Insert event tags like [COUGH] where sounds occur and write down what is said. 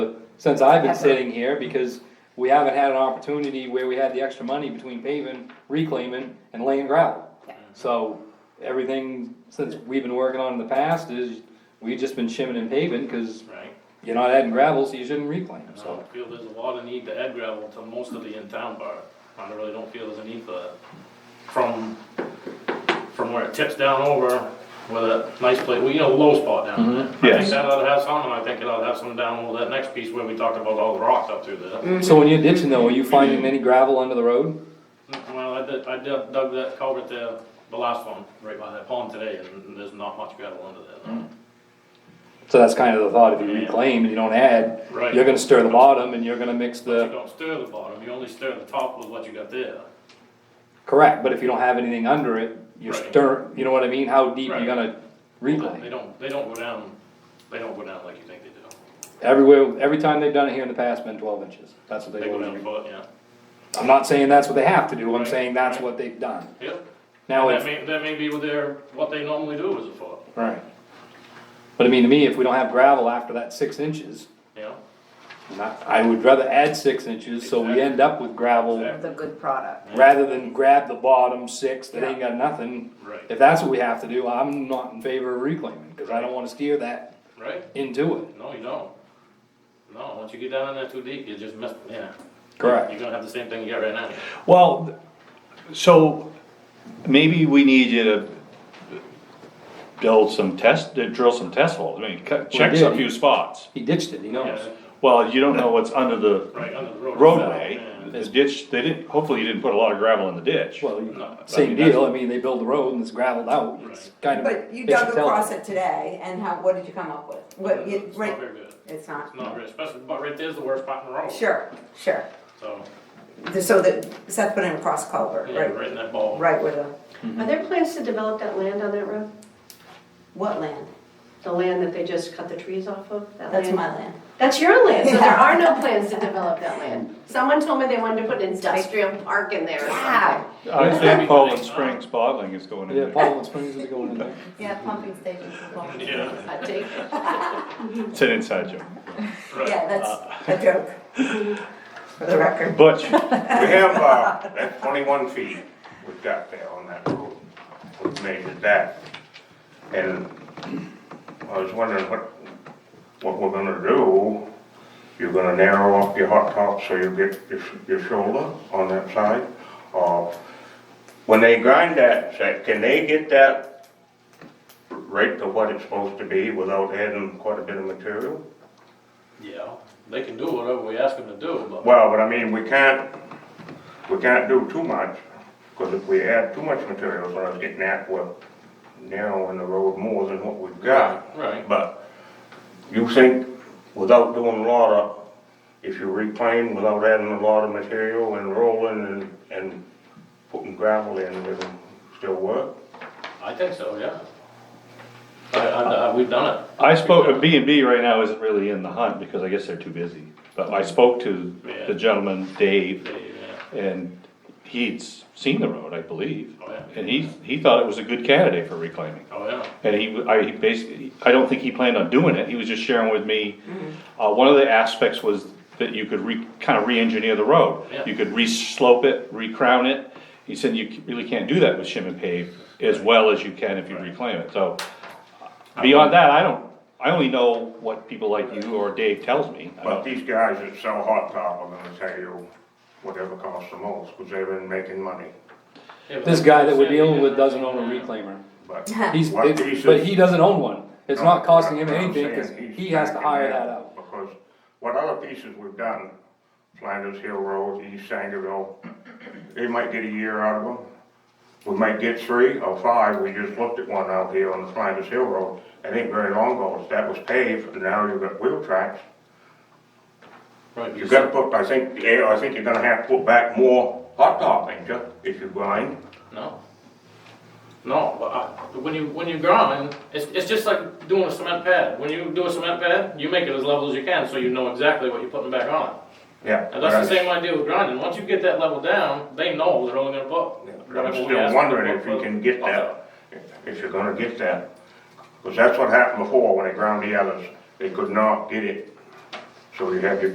since I've been Ever. sitting here, because we haven't had an opportunity where we had the extra money between paving, reclaiming, and laying gravel. Yeah. So, everything since we've been working on in the past is, we've just been shimming and paving, cause right? you're not adding gravel, so you shouldn't reclaim, And I so. don't feel there's a lot of need to add gravel to most of the in-town part. I really don't feel there's a need for that. From, from where it tips down over with a nice place, well, you know, low spot down there. I think Yes. that ought to have some, and I think it ought to have some down over that next piece where we talked about all the rocks up through there. So when you're ditching though, are you finding any gravel under the road? Well, I did, I dug dug that culvert there, the last one, right by that pond today, and there's not much gravel under there, no. So that's kind of the thought, if you Yeah. reclaim and you don't add, Right. you're gonna stir the bottom and you're gonna mix You the, don't stir the bottom, you only stir the top with what you got there. correct, but if you don't have anything under it, you're Right. stir, you know what I mean, how deep you're Right. gonna They reclaim? don't, they don't go down, they don't go down like you think they do. Everywhere, every time they've done it here in the past, been twelve inches, that's what They they've go down done. foot, yeah. I'm not saying that's what they have to do, I'm Right. saying that's Right. what they've done. Yep. Now, That if may, that may be what their, what they normally do is a foot, Right. But I mean, to me, if we don't have gravel after that six inches, you know? and I, I would rather add six inches, so we Exactly. end up with gravel, Exactly. the good product. rather than grab the bottom six that ain't got nothing. Right, If that's what we have to do, I'm not in favor of reclaiming, cause I don't wanna steer that right? into it. No, you don't. No, once you get down in there too deep, you just miss, yeah. Correct. You're gonna have the same thing you got right now. Well, so maybe we need you to build some test, to drill some test holes, I mean, cut- check did. a few spots. He ditched it, he knows. Yeah, Well, you don't know what's under the Right, under the road. roadway, Yeah. the ditch, they didn't, hopefully you didn't put a lot of gravel in the ditch. Well, you- No, I same mean, that's- deal, I mean, they build the road and it's gravelled out, it's kind of. But you fish dug and tell. across it today, and how, what did you come up with? What, you, It's not right, very good. it's not, It's not very, especially, but right there's the worst spot in the road. sure, sure. So, So that, Seth put in a cross culvert, yeah, right, right in that ball. right where the, Are there plans to develop that land on that road? what land? The land that they just cut the trees off of? That That's land? my land. That's your land, so there are no plans to develop that land. Someone told me they wanted to put an industrial park in there or Yeah, something. I think Poland Springs bottling is going in Yeah, there, Portland Springs is going in there. yeah, pumping station. Yeah, Yeah, I take it. it's an inside joke. right. Uh, that's a joke, [LAUGHS] for the record. Butch, We have, uh, that twenty-one feet we've got there on that road, we've made it that. And I was wondering what, what we're gonna do. You're gonna narrow up your hot top so you get your, sh- your shoulder on that side? Or, when they grind that, sec- can they get that right to what it's supposed to be without adding quite a bit of material? Yeah, they can do whatever we ask them to do, but. Well, but I mean, we can't, we can't do too much, because if we add too much material, it's gonna get nap, well, narrowing the road more than what we've got. Right. But you think without doing a lot of, if you reclaim without adding a lot of material and rolling and, and putting gravel in, it'll still work? I think so, yeah. I, I, I- we've done it. I spoke, B and B right now isn't really in the hunt because I guess they're too busy. But I spoke to Yeah. the gentleman, Dave, Yeah, yeah. and he'd seen the road, I believe. Oh, yeah. And he, he thought it was a good candidate for reclaiming. Oh, yeah. And he, w- I, he basically, I don't think he planned on doing it, he was just sharing with me, Mm-hmm. uh, one of the aspects was that you could re, kinda re-engineer the road. Yeah. You could re-slope it, re-crown it, he said you c- really can't do that with shim and pave as well as you can if you Right. reclaim it, so. Beyond that, I don't, I only know what people like you or Dave tells me. I But don't- these guys that sell hot top are gonna tell you whatever costs the most, because they've been making money, Yeah, but This that's guy what that I'm we're saying, dealing yeah. with doesn't own a reclaimer. but. [LAUGHS] He's, What it's- pieces? but he doesn't own one, it's not costing him No, I'm anything, cause saying he's he has to backing hire that out. Because what other pieces we've gotten, Flanders Hill Road, East Sangerville, they might get a year out of them. We might get three or five, we just looked at one out here on the Flanders Hill Road, it ain't very long ago, that was paved, and now you've got wheel tracks. Right, You you gotta put, I think, yeah, I think you're gonna have to put back more hot top, ain't you, if you grind? No. No, but I, when you, when you grind, it's, it's just like doing a cement pad. When you do a cement pad, you make it as level as you can, so you know exactly what you're putting back on. Yeah. And that's the but I- same idea with grinding. Once you get that level down, they know they're only gonna put. Yeah, but whatever I'm we ask them still to wondering put if for you the- can get that, if you're gonna get that. Because that's what happened before when they ground the others, they could not get it. So you have your